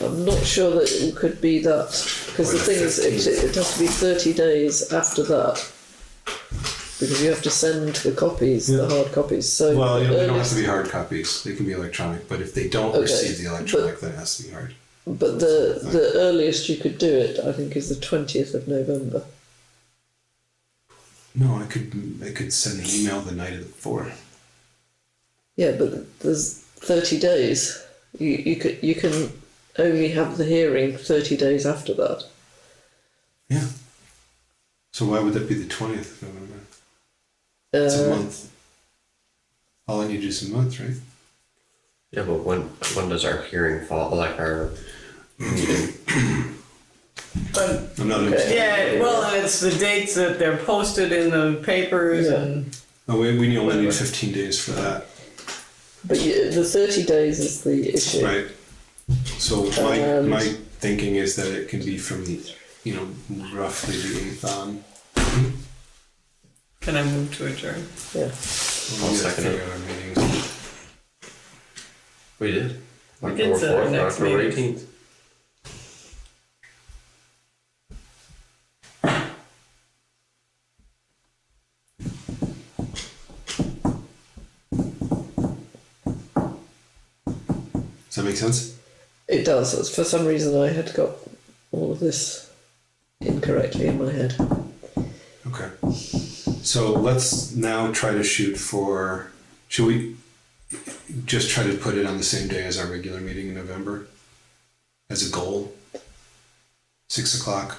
I'm not sure that it could be that because the thing is, it, it has to be 30 days after that because you have to send the copies, Yeah. the hard copies. So Well, you know, they don't have earliest- to be hard copies. They can be electronic, but if they don't Okay, receive the electronic, then it has to be hard. But the the earliest you could do it, I think, is the twentieth of November. No, I could I could send an email the night of the four. Yeah, but there's thirty days. You you could you can only have the hearing thirty days after that. Yeah. So why would that be the twentieth of November? It's a Uh, month. All I need is a month, right? Yeah, but when when does our hearing fall? Like our meeting? But I'm not Okay. yeah, well, and it's the dates that they're posted in the papers Yeah. and Oh, we, we only need fifteen days for that, but you, the thirty days is the issue. right? So my Um, my thinking is that it can be from the you know roughly the eighth on. can I move to adjourn? Yeah. We'll get second figure out our meetings. We did. We did set our next October meeting. eighteenth. Does that make sense? It does. It's- For some reason, I had got all of this incorrectly in my head. Okay. So let's now try to shoot for. Should we just try to put it on the same day as our regular meeting in November as a goal? Six o'clock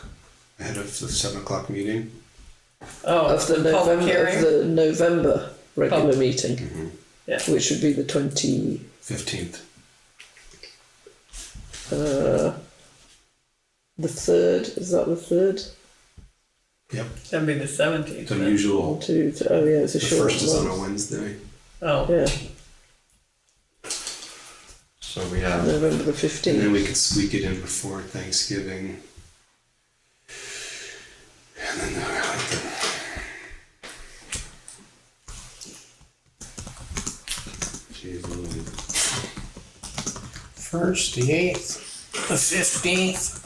ahead of the seven o'clock meeting. Oh, Of the the public November of hearing? the November regular Pub- meeting, Yeah. which would be the twenty. Fifteenth. Uh, the third is that the third? Yep. That'd be the seventeenth. It's unusual. Two, th- oh yeah, it's a The short first is on a one. Wednesday. Oh, Yeah, So we have November the And then fifteenth. we could squeak it in before Thanksgiving. And then uh, I like the Jeez Louise. First, the eighth, the fifteenth,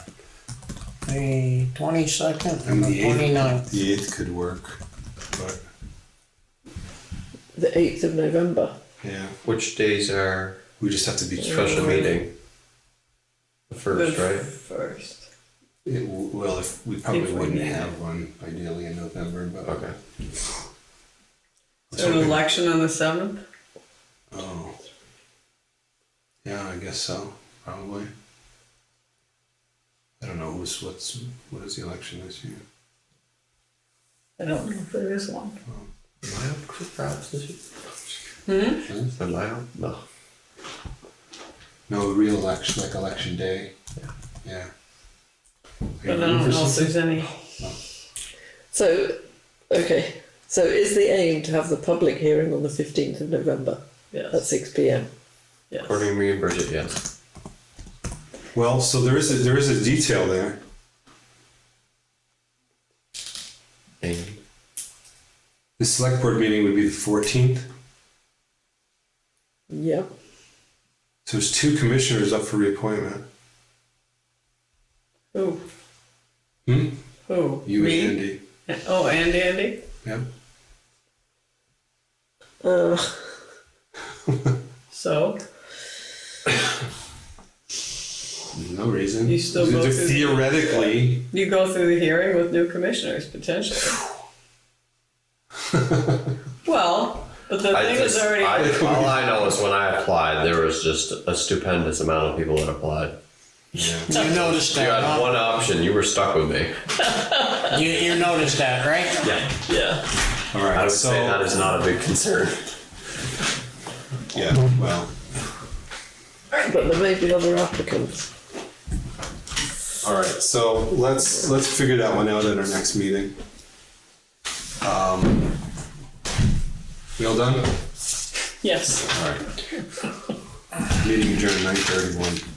the twenty-second, and And the the eighth. twenty-ninth. The eighth could work, but The eighth of November. yeah, which days are we just have to be special meeting? The the first, right? first. It, w- well, if we probably If we wouldn't need have one ideally in November, but Okay. So an election on the seventh? Oh, yeah, I guess so. Probably. I don't know who's what's what is the election this year. I don't know if there is one. Am I up for grabs this year? Hmm? Am I up? No. No, real election, like election day. Yeah. Yeah. But I don't know if there's any. So, okay. So is the aim to have the public hearing on the fifteenth of November at Yes, six p.m. yes. According to me and Bridget, yes. Well, so there is a, there is a detail there. And The select board meeting would be the fourteenth. Yeah. So there's two commissioners up for reappointment. Who? Hmm? Who? You Me? and Andy. Oh, and Andy? Yep. Uh, So, No reason. You still They're voted? theoretically. you go through the hearing with new commissioners potentially. Well, but the I thing is just, already. I, all I know is when I applied, there was just a stupendous amount of people that applied. Yeah. You noticed You that, had huh? one option. You were stuck with me. You, you noticed that, right? Yeah. Yeah. All I right. would So say that is not a big concern. yeah. Well. but there may be other applicants. All right, so let's let's figure that one out at our next meeting. Um, we all done? Yes. All right. Meeting adjourned nine thirty-one.